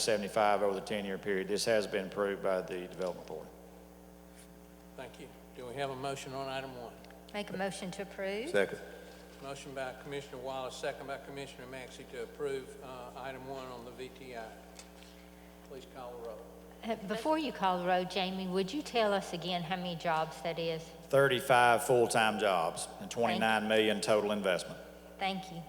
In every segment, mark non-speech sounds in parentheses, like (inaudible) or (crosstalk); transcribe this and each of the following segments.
375 over the 10-year period. This has been approved by the Development Authority. Thank you. Do we have a motion on item one? Make a motion to approve. Second. Motion by Commissioner Wallace, second by Commissioner Maxey to approve uh, item one on the VTI. Please call the roll. Uh, Before you call the roll, Jamie, would you tell us again how many jobs that is? 35 full-time jobs and 29 million total investment. Thank you.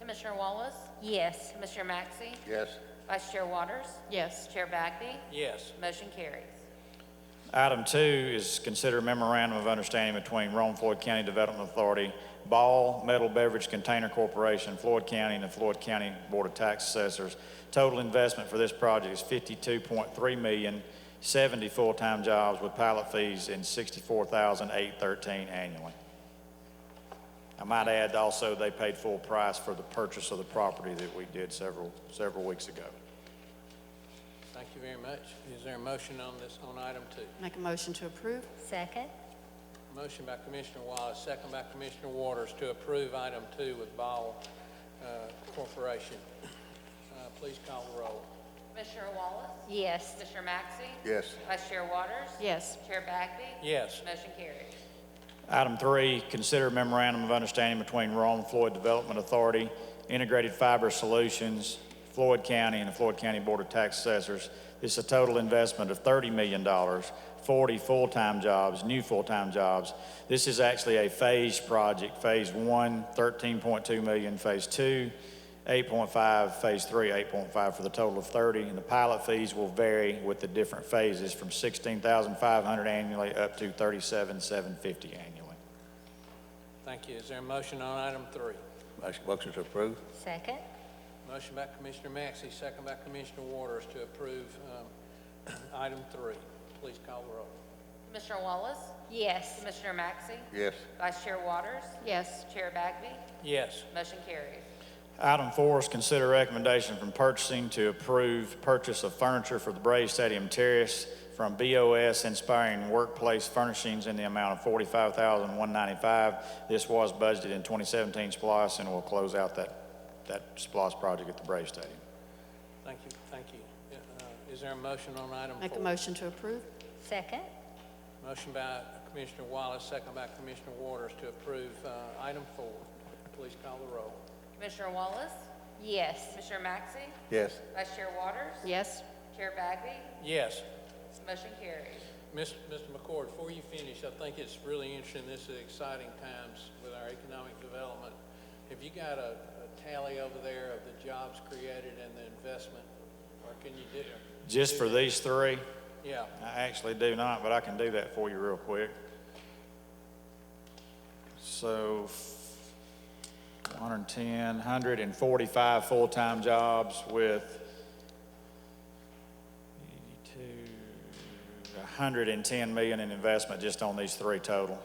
Commissioner Wallace, Yes. Commissioner Maxey, Yes. Vice Chair Waters, Yes. Chair Bagby, Yes. motion carries. Item two is consider memorandum of understanding between Rome Floyd County Development Authority, Ball Metal Beverage Container Corporation, Floyd County, and the Floyd County Board of Tax Assessors. Total investment for this project is 52.3 million, 70 full-time jobs with pilot fees and 64,813 annually. I might add also, they paid full price for the purchase of the property that we did several, several weeks ago. Thank you very much. Is there a motion on this, on item two? Make a motion to approve? Second? Motion by Commissioner Wallace, second by Commissioner Waters to approve item two with Ball uh, Corporation. Uh, Please call the roll. Commissioner Wallace, Yes. Commissioner Maxey, Yes. Vice Chair Waters, Yes. Chair Bagby, Yes. motion carries. Item three, consider memorandum of understanding between Rome Floyd Development Authority, Integrated Fiber Solutions, Floyd County, and the Floyd County Board of Tax Assessors. This is a total investment of $30 million, 40 full-time jobs, new full-time jobs. This is actually a phased project, Phase 1, 13.2 million, Phase 2, 8.5, Phase 3, 8.5, for the total of 30. And the pilot fees will vary with the different phases, from 16500 annually up to 37750 annually. Thank you. Is there a motion on item three? Motion- Motion to approve? Second? Motion by Commissioner Maxey, second by Commissioner Waters to approve um, (clears throat) item three. Please call the roll. Commissioner Wallace, Yes. Commissioner Maxey, Yes. Vice Chair Waters, Yes. Chair Bagby, Yes. motion carries. Item four is consider recommendation from purchasing to approve purchase of furniture for the Braves Stadium Terrace from BOS Inspiring Workplace Furnishings in the amount of $45,195. This was budgeted in 2017 SPOS and will close out that, that SPOS project at the Braves Stadium. Thank you, thank you. Uh, Is there a motion on item Make a four? motion to approve? Second? Motion by Commissioner Wallace, second by Commissioner Waters to approve uh, item four. Please call the roll. Commissioner Wallace, Yes. Commissioner Maxey, Yes. Vice Chair Waters, Yes. Chair Bagby, Yes. motion carries. Mis- Mr. McCord, before you finish, I think it's really interesting, this is exciting times with our economic development. Have you got a a tally over there of the jobs created and the investment? Or can you do, Just for these three, yeah, I actually do not, but I can do that for you real quick. So 110, 145 full-time jobs with 82, 110 million in investment just on these three total.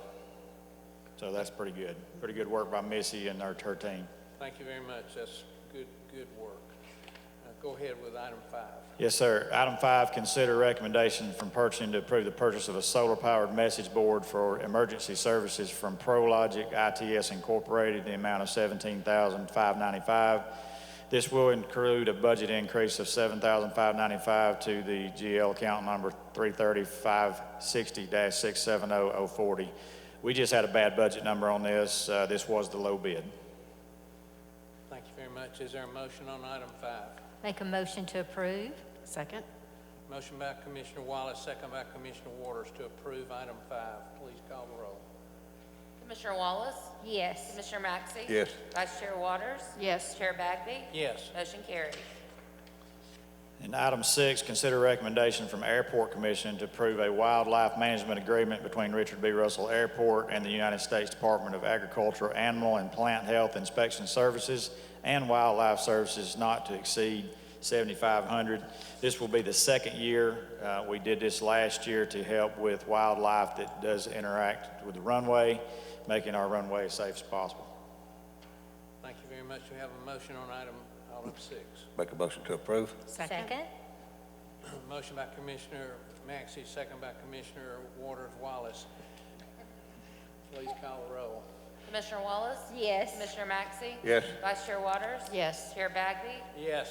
So that's pretty good. Pretty good work by Missy and her her team. thank you very much, that's good, good work. Uh, Go ahead with item five. Yes, sir. Item five, consider recommendation from purchasing to approve the purchase of a solar-powered message board for emergency services from Prologic ITS Incorporated, the amount of $17,595. This will include a budget increase of $7,595 to the GL account number 33560-670040. We just had a bad budget number on this. Uh, This was the low bid. Thank you very much. Is there a motion on item five? Make a motion to approve. Second? Motion by Commissioner Wallace, second by Commissioner Waters to approve item five. Please call the roll. Commissioner Wallace, Yes. Commissioner Maxey. Yes. Vice Chair Waters, Yes. Chair Bagby, Yes. motion carries. And item six, consider recommendation from Airport Commission to approve a wildlife management agreement between Richard B. Russell Airport and the United States Department of Agriculture Animal and Plant Health Inspection Services and Wildlife Services not to exceed 7,500. This will be the second year. Uh, We did this last year to help with wildlife that does interact with the runway, making our runway as safe as possible. Thank you very much. We have a motion on item, item six. (coughs) Make a motion to approve? Second? Motion by Commissioner Maxey, second by Commissioner Waters Wallace. Please call the roll. Commissioner Wallace? Yes. Commissioner Maxey? Yes. Vice Chair Waters? Yes. Chair Bagby? Yes.